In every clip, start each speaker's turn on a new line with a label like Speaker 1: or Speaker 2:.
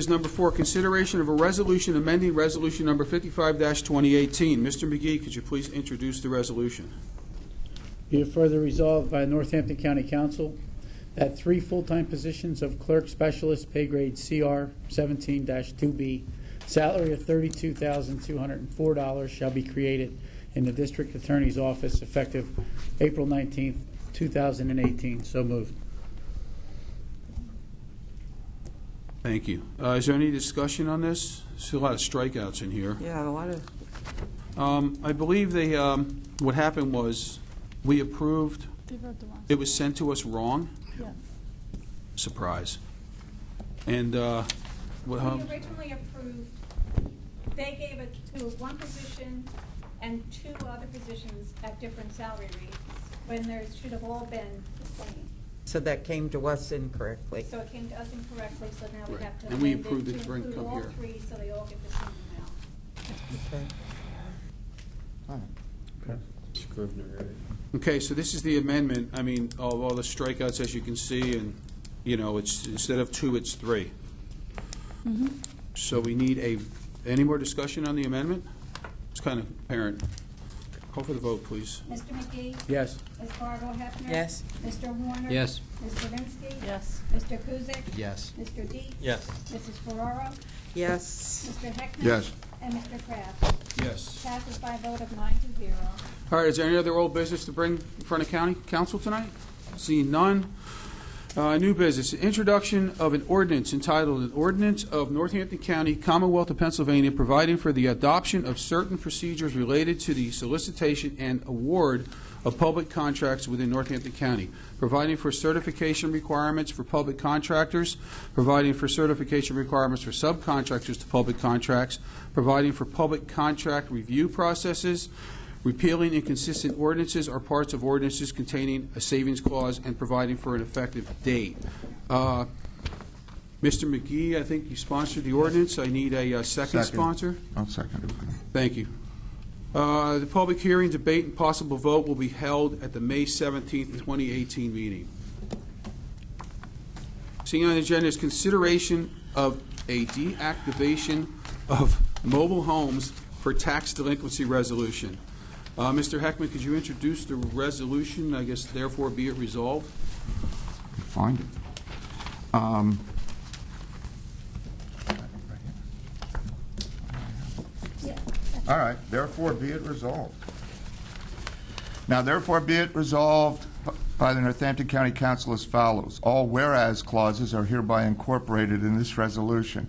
Speaker 1: Is number four, consideration of a resolution amending resolution number fifty-five twenty eighteen. Mr. McGee, could you please introduce the resolution?
Speaker 2: Be it further resolved by Northampton County Council that three full-time positions of clerk specialist, pay grade CR 17-2B, salary of $32,204 shall be created in the district attorney's office effective April 19th, 2018. So moved.
Speaker 1: Thank you. Uh, is there any discussion on this? See a lot of strikeouts in here.
Speaker 3: Yeah, a lot of,
Speaker 1: Um, I believe they, um, what happened was, we approved,
Speaker 4: They wrote the wrong.
Speaker 1: it was sent to us wrong,
Speaker 4: Yeah.
Speaker 1: surprise. And, uh, what,
Speaker 5: We
Speaker 1: um,
Speaker 5: originally approved, they gave it to one position and two other positions at different salary rates, when there should have all been the same.
Speaker 3: so that came to us incorrectly.
Speaker 5: So it came to us incorrectly, so now
Speaker 1: Right.
Speaker 5: we have to
Speaker 1: And we
Speaker 5: amend
Speaker 1: approved it
Speaker 5: it
Speaker 1: for
Speaker 5: to
Speaker 1: income
Speaker 5: include all
Speaker 1: here.
Speaker 5: three, so they all get the same amount.
Speaker 3: Okay. All right.
Speaker 1: okay, so this is the amendment, I mean, of all the strikeouts, as you can see, and, you know, it's, instead of two, it's three. So we need a, any more discussion on the amendment? It's kind of apparent. Call for the vote, please.
Speaker 5: Mr. McGee?
Speaker 2: Yes.
Speaker 5: Ms. Fargo Hefner?
Speaker 3: Yes.
Speaker 5: Mr. Warner?
Speaker 6: Yes.
Speaker 5: Ms. Zirinsky?
Speaker 4: Yes.
Speaker 5: Mr. Kuzic?
Speaker 6: Yes.
Speaker 5: Mr. Dees?
Speaker 6: Yes.
Speaker 5: Mrs. Ferraro?
Speaker 3: Yes,
Speaker 5: Mr. Heckman?
Speaker 7: Yes.
Speaker 5: And Mr. Kraft.
Speaker 1: Yes.
Speaker 5: Passes by a vote of nine to zero.
Speaker 1: All right, is there any other old business to bring in front of county council tonight? Seeing none. Uh, New business, introduction of an ordinance entitled, "An Ordinance of Northampton County, Commonwealth of Pennsylvania, Providing for the Adoption of Certain Procedures Related to the Solicitation and Award of Public Contracts Within Northampton County, Providing for Certification Requirements for Public Contractors, Providing for Certification Requirements for Subcontractors to Public Contracts, Providing for Public Contract Review Processes, repealing inconsistent ordinances or parts of ordinances containing a savings clause and providing for an effective date. Uh, Mr. McGee, I think you sponsored the ordinance. I need a uh, second
Speaker 7: Second.
Speaker 1: sponsor.
Speaker 7: I'll second it.
Speaker 1: Thank you. Uh, The public hearing, debate, and possible vote will be held at the May 17th, 2018 meeting. Seeing on the agenda is consideration of a deactivation of mobile homes for tax delinquency resolution. Uh, Mr. Heckman, could you introduce the resolution, I guess therefore be it resolved?
Speaker 7: Find it. Um, All right, therefore be it resolved. Now therefore be it resolved by the Northampton County Council as follows. All whereas clauses are hereby incorporated in this resolution.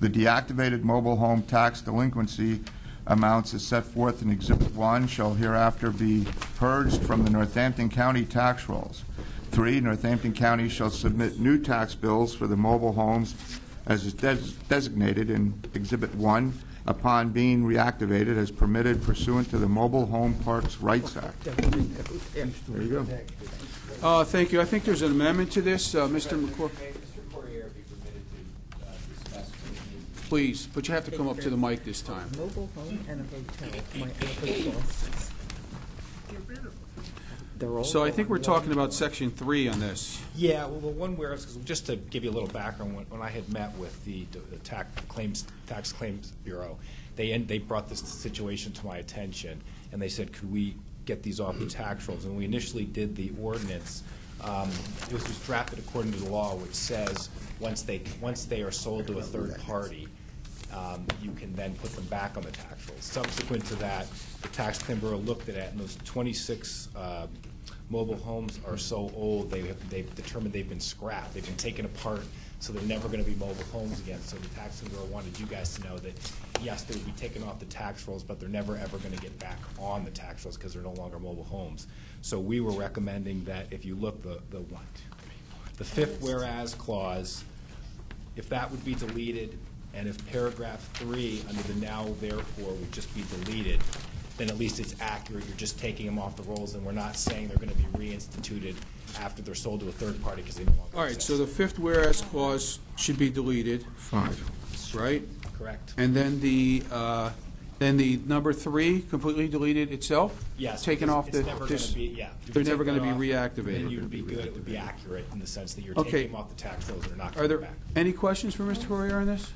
Speaker 7: The deactivated mobile home tax delinquency amounts as set forth in Exhibit 1 shall hereafter be purged from the Northampton County tax rolls. Three, Northampton County shall submit new tax bills for the mobile homes as is des- designated in Exhibit 1 upon being reactivated as permitted pursuant to the Mobile Home Parks Rights Act. There you go.
Speaker 1: Uh, Thank you. I think there's an amendment to this. Uh, Mr. McCor,
Speaker 8: Mr. Corriere be permitted to uh, discuss with me
Speaker 1: please, but you have to come up to the mic this time.
Speaker 3: mobile home and a hotel, my other bosses. They're all
Speaker 1: So I think
Speaker 3: gone.
Speaker 1: we're talking about Section 3 on this.
Speaker 8: Yeah, well, the one where, it's- 'cause just to give you a little background, when, when I had met with the, the tax claims, tax claims bureau, they, en- they brought this situation to my attention, and they said, could we get these off the tax rolls? And we initially did the ordinance, um, it was just drafted according to the law, which says, once they, once they are sold to a third party, um, you can then put them back on the tax rolls. Subsequent to that, the tax claim bureau looked at it, and those twenty-six, um, mobile homes are so old, they have, they've determined they've been scrapped, they've been taken apart, so they're never gonna be mobile homes again. So the tax bureau wanted you guys to know that, yes, they would be taken off the tax rolls, but they're never, ever gonna get back on the tax rolls because they're no longer mobile homes. So we were recommending that if you look, the, the one, two, three, the fifth whereas clause, if that would be deleted, and if paragraph three under the now therefore would just be deleted, then at least it's accurate, you're just taking them off the rolls, and we're not saying they're gonna be reinstituted after they're sold to a third party, because they no longer
Speaker 1: All right,
Speaker 8: exist.
Speaker 1: so the fifth whereas clause should be deleted,
Speaker 7: Five.
Speaker 1: right?
Speaker 8: Correct.
Speaker 1: And then the, uh, then the number three completely deleted itself?
Speaker 8: Yes.
Speaker 1: Taken
Speaker 8: because
Speaker 1: off the,
Speaker 8: It's never gonna
Speaker 1: this-
Speaker 8: be, yeah. if you
Speaker 1: they're
Speaker 8: take
Speaker 1: never
Speaker 8: that
Speaker 1: gonna be
Speaker 8: off, Then
Speaker 1: reactivated.
Speaker 8: you would be good, it would be accurate in the sense that you're
Speaker 1: Okay.
Speaker 8: taking them off the tax rolls, they're not
Speaker 1: Are
Speaker 8: coming
Speaker 1: there
Speaker 8: back.
Speaker 1: any questions for Mr. Correa on this?